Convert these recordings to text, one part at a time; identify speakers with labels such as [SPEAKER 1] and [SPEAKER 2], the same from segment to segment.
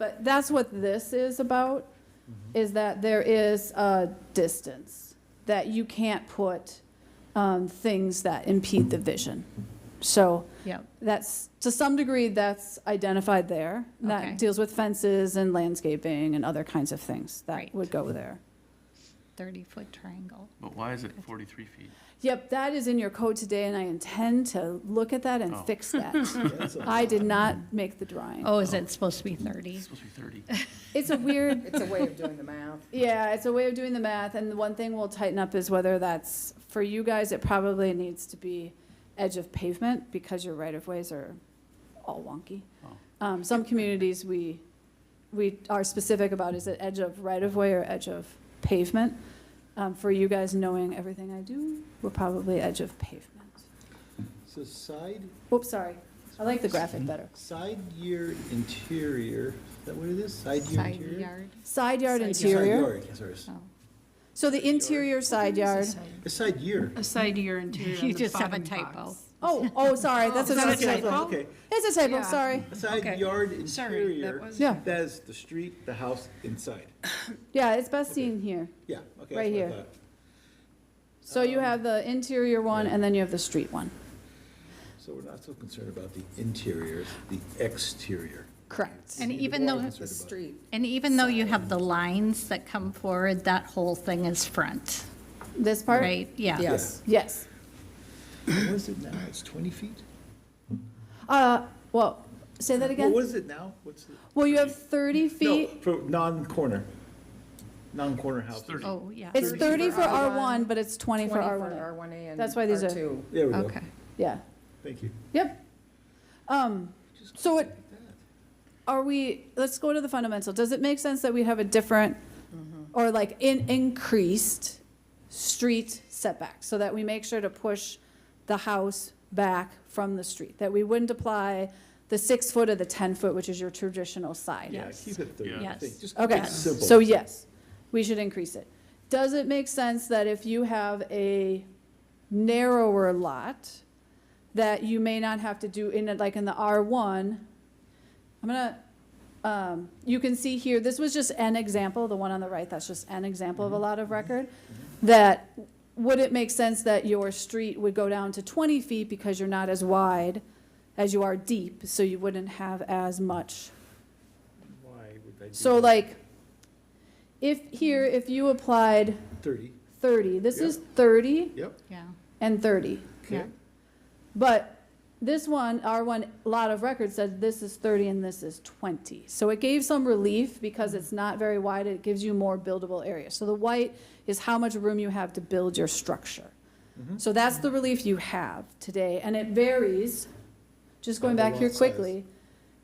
[SPEAKER 1] But that's what this is about, is that there is a distance, that you can't put um, things that impede the vision. So
[SPEAKER 2] Yep.
[SPEAKER 1] that's, to some degree, that's identified there.
[SPEAKER 2] Okay.
[SPEAKER 1] That deals with fences and landscaping and other kinds of things
[SPEAKER 2] Right.
[SPEAKER 1] that would go there.
[SPEAKER 2] 30-foot triangle.
[SPEAKER 3] But why is it 43 feet?
[SPEAKER 1] Yep, that is in your code today, and I intend to look at that and
[SPEAKER 3] Oh.
[SPEAKER 1] fix that. I did not make the drawing.
[SPEAKER 2] Oh, is it supposed to be 30?
[SPEAKER 3] It's supposed to be 30.
[SPEAKER 1] It's a weird,
[SPEAKER 4] It's a way of doing the math.
[SPEAKER 1] yeah, it's a way of doing the math, and the one thing we'll tighten up is whether that's, for you guys, it probably needs to be edge of pavement, because your right-of-ways are all wonky.
[SPEAKER 3] Oh.
[SPEAKER 1] Um, some communities, we, we are specific about, is it edge of right-of-way or edge of pavement? Um, for you guys knowing everything I do, we're probably edge of pavement.
[SPEAKER 5] So side,
[SPEAKER 1] Oops, sorry. I like the graphic better.
[SPEAKER 5] side yard interior, is that what it is? Side yard
[SPEAKER 2] Side
[SPEAKER 5] interior?
[SPEAKER 2] yard?
[SPEAKER 1] Side yard
[SPEAKER 2] Side
[SPEAKER 5] Side
[SPEAKER 1] interior.
[SPEAKER 5] yard, yes, sorry.
[SPEAKER 2] Oh.
[SPEAKER 1] So the interior side yard.
[SPEAKER 5] A side yard.
[SPEAKER 6] A side to your interior on
[SPEAKER 2] You
[SPEAKER 6] the
[SPEAKER 2] just have a
[SPEAKER 6] bottom
[SPEAKER 2] typo.
[SPEAKER 6] box.
[SPEAKER 1] Oh, oh, sorry, that's
[SPEAKER 6] Is
[SPEAKER 1] what
[SPEAKER 6] that
[SPEAKER 1] I
[SPEAKER 6] a
[SPEAKER 1] was saying.
[SPEAKER 6] typo?
[SPEAKER 5] Okay,
[SPEAKER 1] It's a typo,
[SPEAKER 6] Yeah.
[SPEAKER 1] sorry.
[SPEAKER 5] a side
[SPEAKER 6] Okay.
[SPEAKER 5] yard
[SPEAKER 6] Sorry, that
[SPEAKER 5] interior,
[SPEAKER 6] was.
[SPEAKER 1] Yeah,
[SPEAKER 5] that is the street, the house inside.
[SPEAKER 1] yeah, it's best seen here.
[SPEAKER 5] Yeah, okay. that's
[SPEAKER 1] Right
[SPEAKER 5] what I
[SPEAKER 1] here.
[SPEAKER 5] thought.
[SPEAKER 1] So you have the interior one and then you have the street one.
[SPEAKER 5] So we're not so concerned about the interior, it's the exterior.
[SPEAKER 1] Correct.
[SPEAKER 2] And
[SPEAKER 5] See, the
[SPEAKER 2] even
[SPEAKER 5] more
[SPEAKER 2] though-
[SPEAKER 5] concerned
[SPEAKER 4] The
[SPEAKER 5] about.
[SPEAKER 4] street.
[SPEAKER 2] And even though you have the lines that come forward, that whole thing is front,
[SPEAKER 1] This part?
[SPEAKER 2] right? Yeah.
[SPEAKER 4] Yes.
[SPEAKER 1] Yes.
[SPEAKER 5] What is it now? It's 20 feet?
[SPEAKER 1] Uh, well, say that
[SPEAKER 5] Well, What
[SPEAKER 1] again?
[SPEAKER 5] is it now? What's the?
[SPEAKER 1] Well, you have 30
[SPEAKER 5] No,
[SPEAKER 1] feet.
[SPEAKER 5] for non-corner, non-corner houses.
[SPEAKER 3] 30.
[SPEAKER 2] Oh, yeah.
[SPEAKER 1] It's 30 for
[SPEAKER 4] for R1,
[SPEAKER 1] R1, but it's 20 for R1.
[SPEAKER 4] R1A and
[SPEAKER 1] That's why these are-
[SPEAKER 4] R2.
[SPEAKER 5] There we go,
[SPEAKER 2] Okay.
[SPEAKER 1] Yeah,
[SPEAKER 5] thank you.
[SPEAKER 1] yep. Um, so it, are we, let's go to the fundamental. Does it make sense that we have a different,
[SPEAKER 4] Mm-hmm.
[SPEAKER 1] or like in, increased street setback? So that we make sure to push the house back from the street? That we wouldn't apply the six foot or the 10 foot, which is your traditional side?
[SPEAKER 5] Yeah,
[SPEAKER 2] Yes.
[SPEAKER 5] keep it 30.
[SPEAKER 3] Yeah.
[SPEAKER 5] I think.
[SPEAKER 2] Yes.
[SPEAKER 5] Just keep
[SPEAKER 1] Okay,
[SPEAKER 5] it simple.
[SPEAKER 1] so yes, we should increase it. Does it make sense that if you have a narrower lot, that you may not have to do in, it- like in the R1? I'm gonna, um, you can see here, this was just an example, the one on the right, that's just an example of a lot of record, that would it make sense that your street would go down to 20 feet because you're not as wide as you are deep, so you wouldn't have as much
[SPEAKER 5] Why would I do
[SPEAKER 1] so
[SPEAKER 5] that?
[SPEAKER 1] like, if here, if you applied
[SPEAKER 5] 30,
[SPEAKER 1] thirty, this is thirty
[SPEAKER 5] yep,
[SPEAKER 2] Yeah.
[SPEAKER 1] and thirty.
[SPEAKER 5] okay.
[SPEAKER 1] But this one, our one lot of record said this is thirty and this is twenty. So it gave some relief because it's not very wide, it gives you more buildable area. So the white is how much room you have to build your structure.
[SPEAKER 5] Mm-hmm.
[SPEAKER 1] So that's the relief you have today, and it varies, just going
[SPEAKER 5] By the
[SPEAKER 1] back here
[SPEAKER 5] lot size.
[SPEAKER 1] quickly.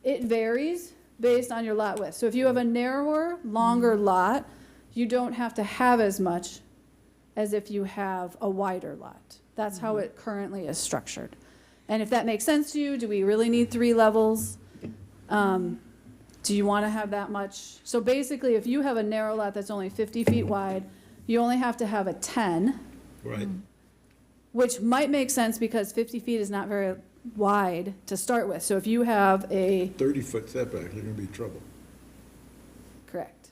[SPEAKER 1] It varies based on your lot width. So if you have a narrower,
[SPEAKER 5] Mm-hmm.
[SPEAKER 1] longer lot, you don't have to have as much as if you have a wider lot. That's
[SPEAKER 5] Mm-hmm.
[SPEAKER 1] how it currently is structured. And if that makes sense to you, do we really need three levels? Um, Do you want to have that much? So basically, if you have a narrow lot that's only 50 feet wide, you only have to have a 10,
[SPEAKER 5] Right,
[SPEAKER 1] which might make sense because 50 feet is not very wide to start with. So if you have a,
[SPEAKER 5] 30-foot setback, you're gonna be in trouble.
[SPEAKER 1] correct.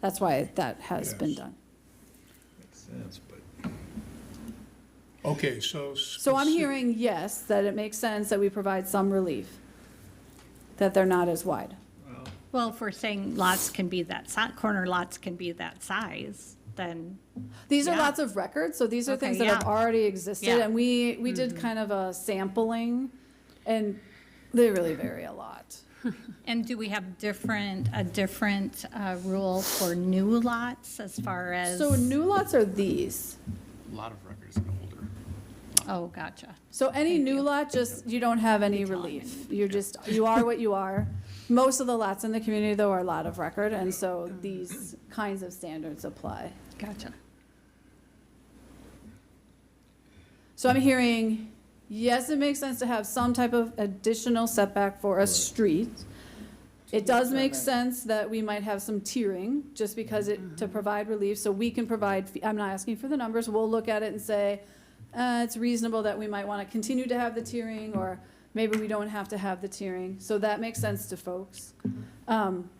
[SPEAKER 1] That's why that has been
[SPEAKER 5] Yes.
[SPEAKER 1] done.
[SPEAKER 5] Makes sense, but.
[SPEAKER 7] Okay, so.
[SPEAKER 1] So I'm hearing yes, that it makes sense that we provide some relief, that they're not as wide.
[SPEAKER 2] Well, if we're saying lots can be that, si- corner lots can be that size, then,
[SPEAKER 1] These are
[SPEAKER 2] Yeah.
[SPEAKER 1] lots of records, so these are
[SPEAKER 2] Okay,
[SPEAKER 1] things that have
[SPEAKER 2] yeah.
[SPEAKER 1] already existed,
[SPEAKER 2] Yeah.
[SPEAKER 1] and we, we did kind of a sampling, and they really vary a lot.
[SPEAKER 2] and do we have different, a different uh, rule for new lots as far as?
[SPEAKER 1] So new lots are these.
[SPEAKER 3] A lot of records and older.
[SPEAKER 2] Oh, gotcha.
[SPEAKER 1] So any new lot, just, you don't have any relief. You're just, you are what you are. Most of the lots in the community, though, are a lot of record, and so these kinds of standards apply.
[SPEAKER 2] Gotcha.
[SPEAKER 1] So I'm hearing, yes, it makes sense to have some type of additional setback for a street. It does make sense that we might have some tiering, just because it, to provide relief, so we can provide, fee- I'm not asking for the numbers, we'll look at it and say, uh, it's reasonable that we might wanna continue to have the tiering, or maybe we don't have to have the tiering, so that makes sense to folks. Um,